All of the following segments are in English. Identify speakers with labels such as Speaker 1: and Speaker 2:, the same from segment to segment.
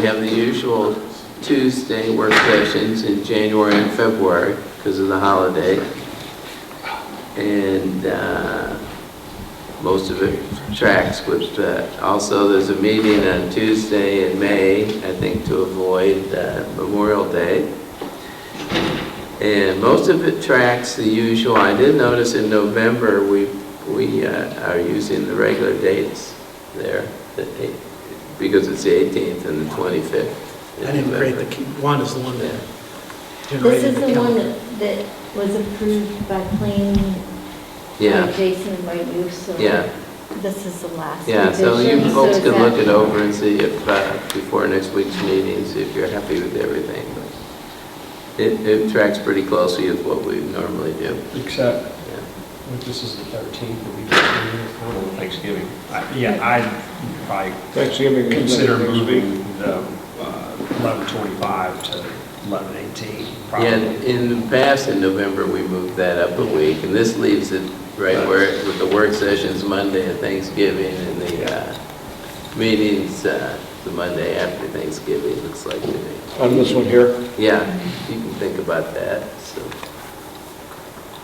Speaker 1: We have the usual Tuesday work sessions in January and February because of the holiday. And uh, most of it tracks with that. Also, there's a meeting on Tuesday in May, I think, to avoid uh, Memorial Day. And most of it tracks the usual. I did notice in November, we, we uh, are using the regular dates there, the eight- because it's the 18th and the 25th. in
Speaker 2: I didn't create
Speaker 1: November.
Speaker 2: the, key- Wanda's the one that
Speaker 3: This
Speaker 2: generated
Speaker 3: is
Speaker 2: the
Speaker 3: the one
Speaker 2: calendar.
Speaker 3: that, that was approved by planning, by
Speaker 1: Yeah,
Speaker 3: Jason and by you, so
Speaker 1: yeah,
Speaker 3: this is the last
Speaker 1: yeah, so you
Speaker 3: revision,
Speaker 1: folks
Speaker 3: it's
Speaker 1: can look
Speaker 3: at-
Speaker 1: it over and see if, uh, before next week's meeting, see if you're happy with everything. It, it tracks pretty closely with what we normally do.
Speaker 4: Except,
Speaker 1: yeah.
Speaker 4: if this is the 13th, the week before Thanksgiving.
Speaker 5: I- Uh, Yeah, I'd probably
Speaker 4: Thanksgiving.
Speaker 5: consider moving the uh, 11:25 to 11:18,
Speaker 1: Yeah,
Speaker 5: probably.
Speaker 1: in the past, in November, we moved that up a week, and this leaves it right where, with the work sessions Monday and Thanksgiving, and the uh, meetings uh, the Monday after Thanksgiving, looks like to me.
Speaker 4: On this one here?
Speaker 1: Yeah, you can think about that, so,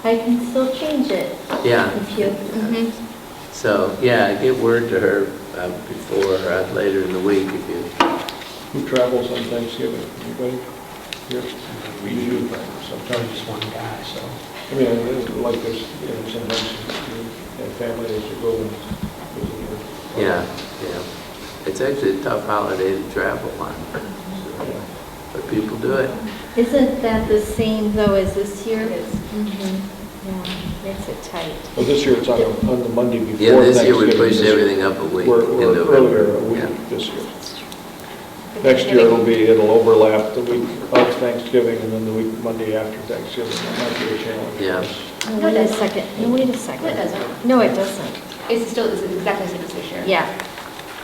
Speaker 3: I can still change it
Speaker 1: yeah.
Speaker 3: if you, Mm-hmm.
Speaker 1: So, yeah, get word to her uh, before, uh, later in the week if you
Speaker 4: Who travels on Thanksgiving? Anybody here?
Speaker 5: We do, but sometimes it's one guy, so.
Speaker 4: I mean, I like this, you know, sometimes you have families that go and visit.
Speaker 1: Yeah, yeah. It's actually a tough holiday to travel on,
Speaker 3: Mm-hmm.
Speaker 1: so, but people do it.
Speaker 3: isn't that the same though as this year? Mhm. Yeah, makes it tight.
Speaker 4: Well, this year it's on, on the Monday before
Speaker 1: Yeah,
Speaker 4: Thanksgiving.
Speaker 1: this year we pushed everything up a week.
Speaker 4: We're,
Speaker 1: in
Speaker 4: we're
Speaker 1: November.
Speaker 4: earlier, a
Speaker 1: Yeah.
Speaker 4: week this year. Next year it'll be, it'll overlap the week of Thanksgiving and then the week Monday after Thanksgiving. That might be a challenge.
Speaker 1: Yeah.
Speaker 3: No, Wait a second, no, wait a second.
Speaker 6: No, it doesn't.
Speaker 3: No, it doesn't,
Speaker 6: It's still, it's exactly the same as this year.
Speaker 3: yeah.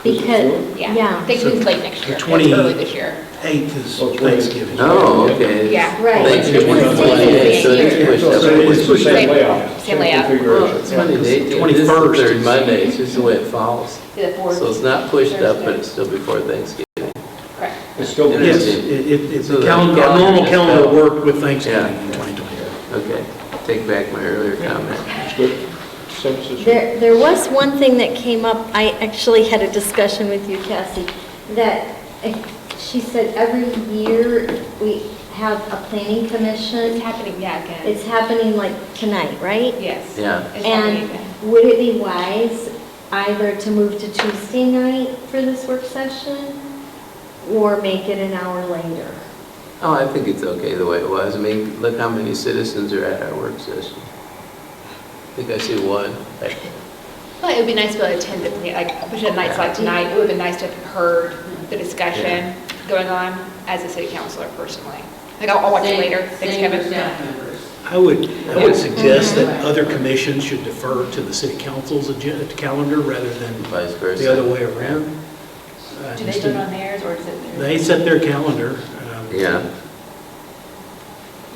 Speaker 4: Is it
Speaker 3: Because,
Speaker 6: Yeah.
Speaker 3: yeah,
Speaker 6: They can late next
Speaker 2: The
Speaker 6: year,
Speaker 2: 20
Speaker 6: early this year.
Speaker 2: Eighth is
Speaker 4: Oh, it's really-
Speaker 2: Thanksgiving.
Speaker 1: Oh, okay.
Speaker 6: Yeah.
Speaker 3: Right.
Speaker 1: Thanksgiving
Speaker 2: It's the
Speaker 1: twenty-eighth, so
Speaker 6: same
Speaker 1: it's
Speaker 6: year.
Speaker 1: pushed
Speaker 4: So
Speaker 1: up.
Speaker 2: So
Speaker 1: a
Speaker 2: it is
Speaker 1: week.
Speaker 4: it's the same
Speaker 6: Same-
Speaker 4: layout.
Speaker 6: same layout.
Speaker 1: Oh,
Speaker 4: configuration.
Speaker 1: it's funny, the eighteenth is the
Speaker 2: 21st.
Speaker 1: third Monday, it's just the way it falls.
Speaker 6: See the fourth?
Speaker 1: So it's not pushed up, but
Speaker 6: Thursday.
Speaker 1: it's still before Thanksgiving.
Speaker 6: Correct.
Speaker 4: It's still.
Speaker 2: Yes, it, it- it's
Speaker 1: So
Speaker 2: the
Speaker 1: the
Speaker 2: calendar, our
Speaker 1: calendar
Speaker 2: normal
Speaker 1: is
Speaker 2: calendar
Speaker 1: out.
Speaker 2: worked with Thanksgiving in 2020.
Speaker 1: Okay, take back my earlier comment.
Speaker 4: It's good. Same as this year.
Speaker 3: There, there was one thing that came up, I actually had a discussion with you, Cassie, that eh, she said every year we have a planning
Speaker 6: It's
Speaker 3: commission.
Speaker 6: happening, yeah, again.
Speaker 3: It's happening like tonight, right?
Speaker 6: Yes.
Speaker 1: Yeah.
Speaker 6: It's happening again.
Speaker 3: And would it be wise either to move to Tuesday night for this work session or make it an hour later?
Speaker 1: Oh, I think it's okay the way it was. I mean, look how many citizens are at our work session. I think I see one. Like,
Speaker 6: Well, it would be nice to be able to attend it, like, especially at nights like tonight, it would have been nice to have heard the discussion going on as a city councillor personally. Like, I'll I'll watch it later, thanks Kevin.
Speaker 2: I would, I would suggest that other commissions should defer to the city council's agenda, calendar, rather than
Speaker 1: Vice versa.
Speaker 2: the other way around. Uh,
Speaker 6: Do they vote on theirs or is it?
Speaker 2: They set their calendar. um,
Speaker 1: Yeah.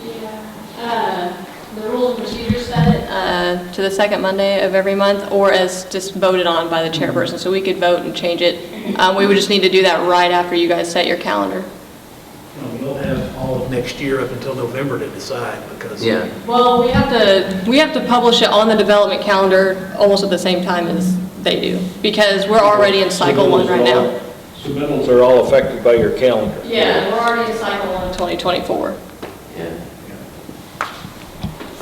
Speaker 7: Yeah, uh, the rules and procedures set uh, to the second Monday of every month, or as just voted on by the chairperson, so we could vote and change it. Um, We would just need to do that right after you guys set your calendar.
Speaker 2: you know, We'll have all of next year up until November to decide, because.
Speaker 1: Yeah.
Speaker 7: Well, we have to, we have to publish it on the development calendar almost at the same time as they do, because we're already in cycle one right now.
Speaker 4: Submittals are all affected by your calendar.
Speaker 7: Yeah, we're already in cycle one. 2024.
Speaker 1: Yeah.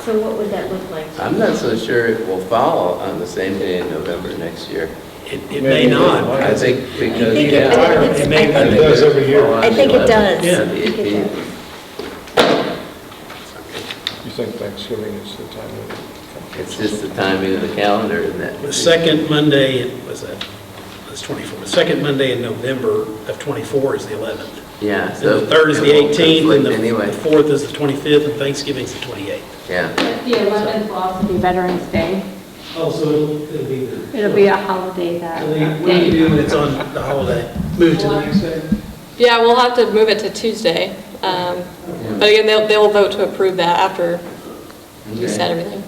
Speaker 3: So what would that look like?
Speaker 1: I'm not so sure it will fall on the same day in November next year.
Speaker 2: It, it may not.
Speaker 1: I think because,
Speaker 3: think
Speaker 1: yeah.
Speaker 3: it- I think it's-
Speaker 2: It may
Speaker 3: I
Speaker 2: not.
Speaker 4: think- It does every year.
Speaker 1: Fall on
Speaker 3: I think it
Speaker 1: the 11th,
Speaker 3: does. I
Speaker 1: the
Speaker 3: think it
Speaker 1: 18th.
Speaker 3: does.
Speaker 4: You think Thanksgiving is the time of.
Speaker 1: It's just the timing of the calendar and that.
Speaker 2: The second Monday, in- was that, that's 24, the second Monday in November of 24 is the 11th.
Speaker 1: Yeah,
Speaker 2: And
Speaker 1: so.
Speaker 2: the third is the
Speaker 1: it won't
Speaker 2: 18th, and
Speaker 1: conflict
Speaker 2: the- the
Speaker 1: Anyway,
Speaker 2: fourth is the 25th, and Thanksgiving's the 28th.
Speaker 1: yeah.
Speaker 8: The 11th will also be Veterans Day.
Speaker 2: Oh, so it'll be
Speaker 8: It'll be a holiday that
Speaker 2: What do you
Speaker 8: day.
Speaker 2: do when it's on the holiday? Move to the next day?
Speaker 7: Yeah, we'll have to move it to Tuesday, um, but again, they'll, they'll vote to approve that after we set
Speaker 1: Okay.
Speaker 7: everything.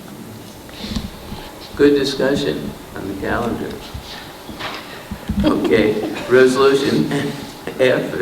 Speaker 1: Good discussion on the calendar. Okay, resolution F